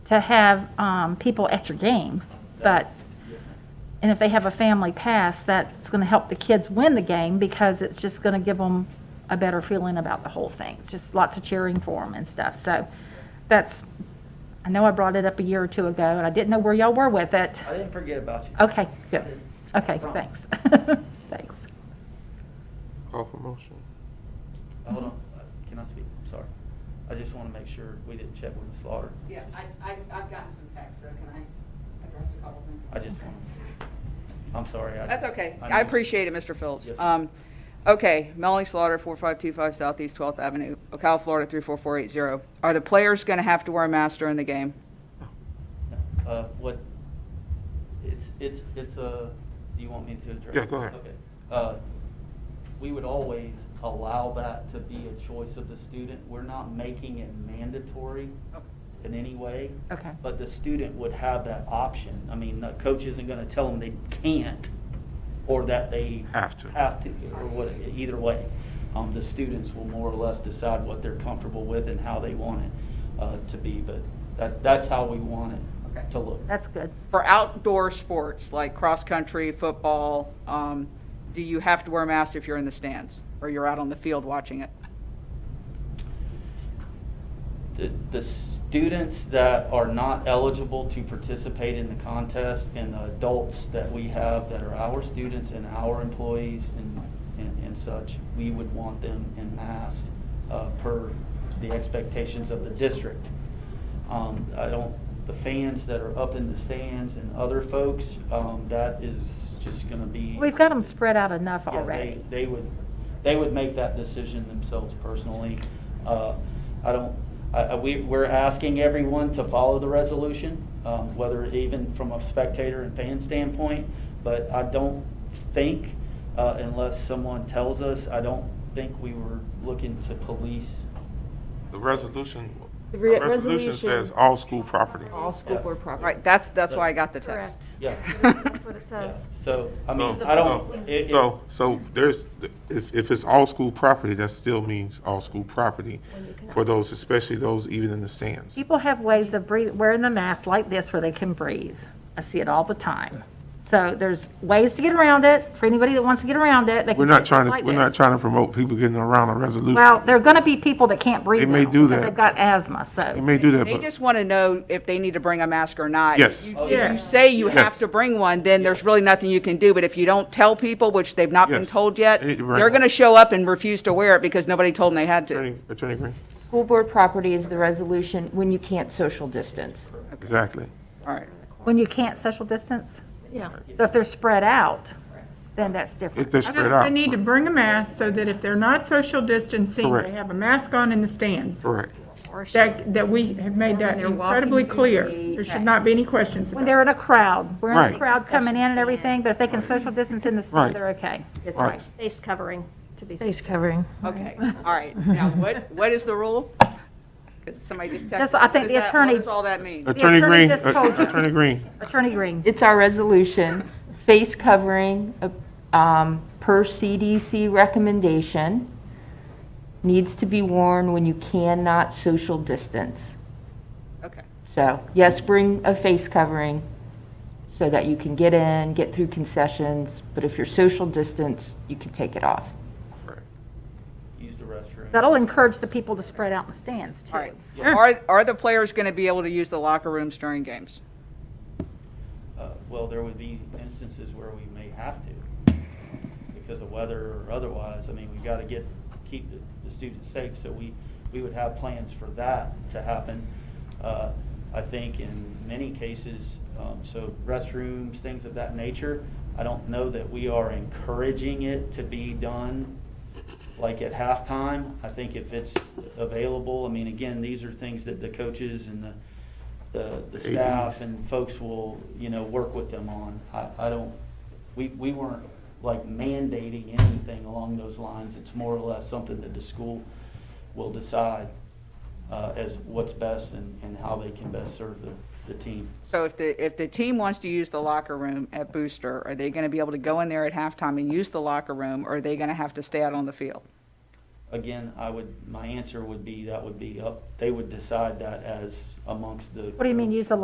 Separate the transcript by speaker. Speaker 1: to have um, people at your game, but, and if they have a family pass, that's going to help the kids win the game because it's just going to give them a better feeling about the whole thing. It's just lots of cheering for them and stuff. So that's, I know I brought it up a year or two ago, and I didn't know where y'all were with it.
Speaker 2: I didn't forget about you.
Speaker 1: Okay, good. Okay, thanks. Thanks.
Speaker 3: Call for motion.
Speaker 2: Hold on, Uh, can I speak? I'm sorry. I just want to make sure we didn't check with Ms. Lauder.
Speaker 4: Yeah, I, I, I've gotten some texts, so can I address a couple things?
Speaker 2: I just want, I'm sorry. I
Speaker 4: That's
Speaker 2: just-
Speaker 4: okay.
Speaker 2: know-
Speaker 4: I appreciate it, Mr. Phillips.
Speaker 2: Yes, ma'am.
Speaker 4: Um, okay, Melanie Slaughter, four five two five Southeast Twelfth Avenue, Ocala, Florida, three four four eight zero. Are the players gonna have to wear a mask during the game?
Speaker 2: No. Uh, what, it's, it's, it's a, do you want me to address?
Speaker 3: Yeah, go ahead.
Speaker 2: Okay. Uh, we would always allow that to be a choice of the student. We're not making it mandatory in any way.
Speaker 1: Okay.
Speaker 2: But the student would have that option. I mean, the coach isn't gonna tell them they can't or that they.
Speaker 3: Have to.
Speaker 2: Have to, or what, either way. Um, the students will more or less decide what they're comfortable with and how they want it, uh, to be, but that, that's how we want
Speaker 4: Okay.
Speaker 2: it to look.
Speaker 1: That's good.
Speaker 4: For outdoor sports, like cross-country, football, um, do you have to wear a mask if you're in the stands or you're out on the field watching it?
Speaker 2: The, the students that are not eligible to participate in the contest and the adults that we have that are our students and our employees and, and, and such, we would want them in masks, uh, per the expectations of the district. Um, I don't, the fans that are up in the stands and other folks, um, that is just gonna be.
Speaker 1: We've got them spread out enough
Speaker 2: Yeah, they-
Speaker 1: already.
Speaker 2: They would, they would make that decision themselves personally. Uh, I don't, I, I- we, we're asking everyone to follow the resolution, um, whether even from a spectator and fan standpoint, but I don't think, uh, unless someone tells us, I don't think we were looking to police.
Speaker 3: The resolution, the
Speaker 5: The re-
Speaker 3: resolution
Speaker 5: resolution-
Speaker 3: says all school property.
Speaker 5: All school
Speaker 2: Yes.
Speaker 5: board
Speaker 4: All
Speaker 5: property.
Speaker 4: right, that's, that's why I got the text.
Speaker 5: Correct.
Speaker 2: Yeah.
Speaker 5: That's what it
Speaker 2: yeah.
Speaker 5: says.
Speaker 2: So, I mean,
Speaker 3: So-
Speaker 2: I don't.
Speaker 3: so-
Speaker 2: it- it-
Speaker 3: So, so there's, if, if it's all school property, that still means all school property for those, especially those even in the stands.
Speaker 1: People have ways of breathing, wearing the mask like this where they can breathe. I see it all the time. So there's ways to get around it. For anybody that wants to get around it, they can.
Speaker 3: We're not
Speaker 1: sit
Speaker 3: trying to,
Speaker 1: like
Speaker 3: we're not
Speaker 1: this.
Speaker 3: trying to promote people getting around a resolution.
Speaker 1: Well, there are going to be people that can't breathe.
Speaker 3: may
Speaker 1: now
Speaker 3: do
Speaker 1: because
Speaker 3: that.
Speaker 1: They've got asthma,
Speaker 3: They
Speaker 1: so.
Speaker 3: may do that,
Speaker 4: They
Speaker 3: but
Speaker 4: just want to know if they need to bring a mask or not.
Speaker 3: Yes.
Speaker 4: You-
Speaker 2: Oh,
Speaker 4: If
Speaker 2: yeah.
Speaker 4: you say you have
Speaker 3: Yes.
Speaker 4: to bring one, then there's really nothing you can do. But if you don't tell people, which they've not been
Speaker 3: Yes.
Speaker 4: told yet,
Speaker 3: They need to bring
Speaker 4: they're
Speaker 3: one.
Speaker 4: going to show up and refuse to wear it because nobody told them they had to.
Speaker 3: Attorney, Attorney Green,
Speaker 5: School board property is the resolution when you can't social distance.
Speaker 3: exactly.
Speaker 4: All right.
Speaker 1: When you can't social distance,
Speaker 5: Yeah.
Speaker 1: so if they're spread out, then that's different.
Speaker 3: If they're
Speaker 6: I
Speaker 3: spread
Speaker 6: just,
Speaker 3: out.
Speaker 6: they need to bring a mask so that if they're not social distancing,
Speaker 3: Correct.
Speaker 6: they have a mask on in the stands.
Speaker 3: Correct.
Speaker 6: That, that we have made that incredibly clear. There should not be any questions
Speaker 1: When
Speaker 6: about it.
Speaker 1: they're in a crowd, we're in a
Speaker 3: Right.
Speaker 1: crowd coming in and everything, but if they can social distance in the
Speaker 3: Right.
Speaker 1: stand, they're okay.
Speaker 5: That's
Speaker 3: Right.
Speaker 5: right. Face covering, to be.
Speaker 7: Face covering.
Speaker 4: Okay, all right. Now, what, what is the rule? Because somebody just texted.
Speaker 1: That's- I think
Speaker 4: me. What
Speaker 1: the
Speaker 4: does that-
Speaker 1: attorney-
Speaker 4: What does all that mean?
Speaker 3: Attorney
Speaker 1: attorney
Speaker 3: Green, uh,
Speaker 1: just told you.
Speaker 3: Attorney Green,
Speaker 1: Attorney Green,
Speaker 5: It's our resolution, face covering, uh, um, per CDC recommendation, needs to be worn when you cannot social distance.
Speaker 4: Okay,
Speaker 5: So, yes, bring a face covering so that you can get in, get through concessions, but if you're social distance, you can take it off.
Speaker 2: Use the restroom.
Speaker 1: that'll encourage the people to spread out in the stands
Speaker 4: all
Speaker 1: too.
Speaker 4: right. Are, are the players going to be able to use the locker rooms during games?
Speaker 2: Uh, Well, there would be instances where we may have to, because of weather or otherwise. I mean, we've got to get, keep the the students safe, so we, we would have plans for that to happen. Uh, I think in many cases, um, so restrooms, things of that nature, I don't know that we are encouraging it to be done like at halftime. I think if it's available, I mean, again, these are things that the coaches and the, the, the staff
Speaker 3: ADs.
Speaker 2: and folks will, you know, work with them on. I, I don't, we, we weren't like mandating anything along those lines. It's more or less something that the school will decide, uh, as what's best and, and how they can best serve the, the team.
Speaker 4: So if the, if the team wants to use the locker room at Booster, are they going to be able to go in there at halftime and use the locker room, or are they going to have to stay out on the field?
Speaker 2: Again, I would, my answer would be, that would be up, they would decide that as amongst the.
Speaker 1: What do you mean, use the